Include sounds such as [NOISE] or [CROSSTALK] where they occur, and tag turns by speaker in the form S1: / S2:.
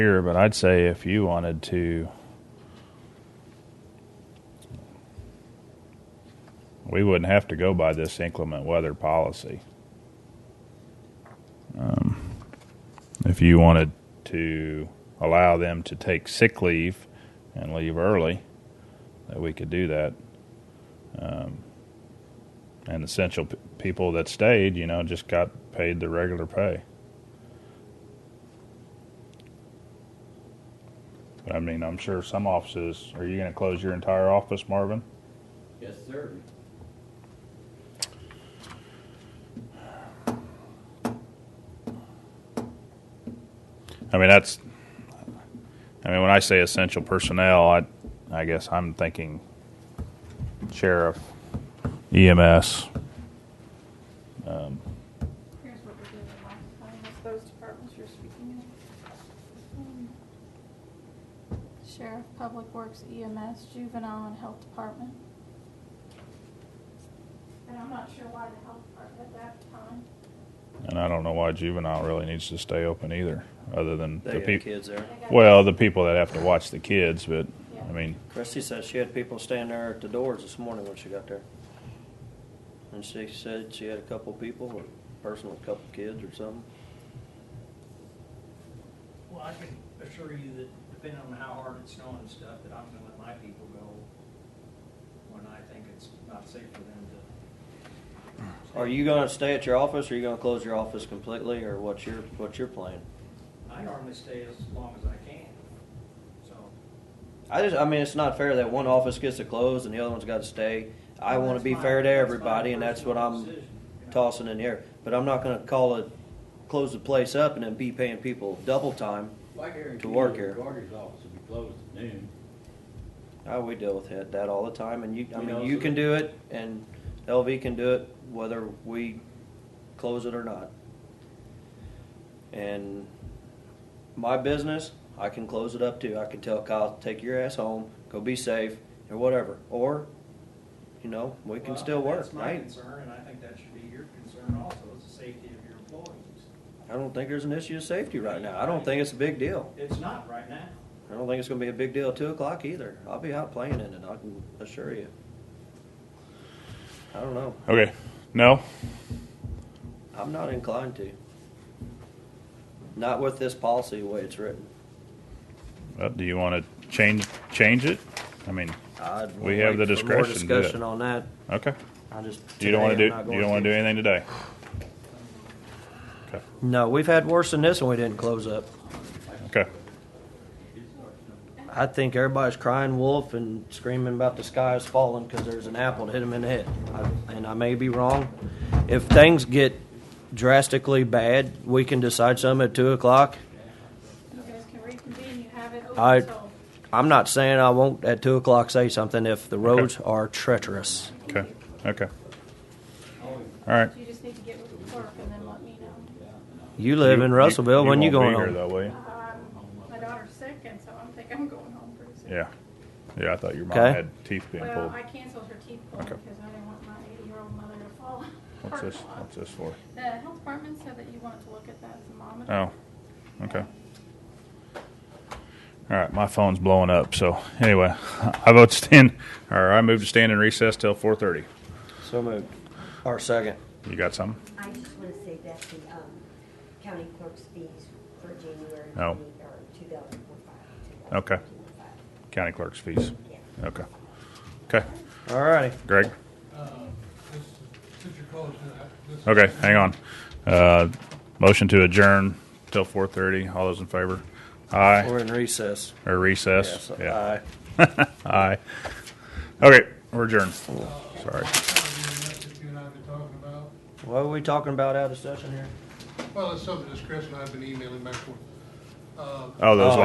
S1: here, but I'd say if you wanted to, we wouldn't have to go by this inclement weather policy. Um, if you wanted to allow them to take sick leave and leave early, that we could do that. Um, and essential p- people that stayed, you know, just got paid the regular pay. But I mean, I'm sure some offices. Are you going to close your entire office, Marvin?
S2: Yes, sir.
S1: I mean, that's. I mean, when I say essential personnel, I, I guess I'm thinking sheriff, EMS. Um,
S3: Here's what we did last time, with those departments you're speaking of. Um, Sheriff, Public Works, EMS, Juvenile, and Health Department. And I'm not sure why the Health Department at that time.
S1: and I don't know why juvenile really needs to stay open either, other than
S2: They
S1: the
S2: got
S1: people.
S2: kids there.
S3: they got-
S1: Well, the people that have to watch the kids, but I mean,
S2: Christy said she had people standing there at the doors this morning when she got there. And she said she had a couple people, a person with a couple kids or something.
S4: Well, I can assure you that depending on how hard it's snowing and stuff, that I'm gonna let my people go when I think it's not safe for them to.
S2: Are you gonna stay at your office, or are you gonna close your office completely, or what's your, what's your plan?
S4: I normally stay as long as I can, so.
S2: I just, I mean, it's not fair that one office gets to close and the other one's gotta stay. I wanna
S4: That's
S2: be
S4: my-
S2: fair to
S4: that's my
S2: everybody, and that's what
S4: personal
S2: I'm
S4: decision, you know.
S2: tossing in the air. But I'm not gonna call it, close the place up and then be paying people double time.
S5: Like Aaron
S2: to work
S5: Kennedy,
S2: here.
S5: the Carter's office will be closed at noon.
S2: Oh, we deal with that, that all the time, and you, I
S5: We
S2: mean,
S5: also-
S2: you can do it, and LV can do it, whether we close it or not. And my business, I can close it up too. I can tell Kyle, take your ass home, go be safe, or whatever. Or, you know, we can
S4: Well,
S2: still work.
S4: That's
S2: I,
S4: my concern, and I think that should be your concern also, is the safety of your employees.
S2: I don't think there's an issue of safety right now. I don't think it's a big deal.
S4: It's not right now.
S2: I don't think it's gonna be a big deal at two o'clock either. I'll be out playing in it, I can assure you. I don't know.
S1: okay, no,
S2: I'm not inclined to. Not with this policy the way it's written.
S1: Uh, do you want to change change it? I mean,
S2: I'd
S1: We have the
S2: wait for more
S1: discretion to do it.
S2: discussion on that.
S1: okay.
S2: I just.
S1: You don't want
S2: today
S1: to
S2: I'm
S1: do
S2: not
S1: you
S2: going
S1: don't want to do anything today.
S2: No, we've had worse than this, and we didn't close up.
S1: Okay.
S2: I think everybody's crying wolf and screaming about the sky is falling because there's an apple that hit them in the head. I, and I may be wrong. If things get drastically bad, we can decide something at two o'clock.
S3: You guys can reconvene, you have it
S2: I-
S3: open till.
S2: I'm not saying I won't at two o'clock say something if the roads are treacherous.
S1: Okay. Okay. All right.
S3: You just need to get with the clerk and then let me know.
S2: You live in Russellville. when you,
S1: won't be
S2: going on?
S1: Here, though, will you?
S3: Um, My daughter's sick, and so I'm thinking I'm going home pretty soon.
S1: Yeah. Yeah, I thought your mom
S2: Okay.
S1: had teeth being
S3: Well,
S1: pulled.
S3: I canceled her teeth pull
S1: Okay.
S3: because I didn't want my eighty-year-old mother to fall. [LAUGHS]
S1: What's
S3: apart.
S1: this? What's this for?
S3: The health department said that you wanted to look at that thermometer. Um,
S1: Oh. Okay. All right, my phone's blowing up. So anyway, [LAUGHS] I vote to stand, or I move to stand in recess till 4:30.
S2: So moved. Our second.
S1: You got something?
S6: I just want to say that the um, county clerk's fees for January
S1: Oh.
S6: are two thousand four five.
S1: Okay. County clerk's fees. Okay. Okay.
S2: All righty.
S1: Greg.
S7: Uh, this, since you're closing it, I- this.
S1: Okay, hang on. Uh, motion to adjourn till four thirty. All those in favor? Aye
S2: We're in recess.
S1: or recess?
S2: Yes,
S1: Yeah. [LAUGHS]
S2: aye.
S1: Aye. Okay, we're adjourned. Sorry.
S7: What kind of unit that you and I have been talking about?
S2: What are we talking about out of session here?
S7: Well, it's something that Chris and I have been emailing back and forth. Uh,
S1: Oh, those.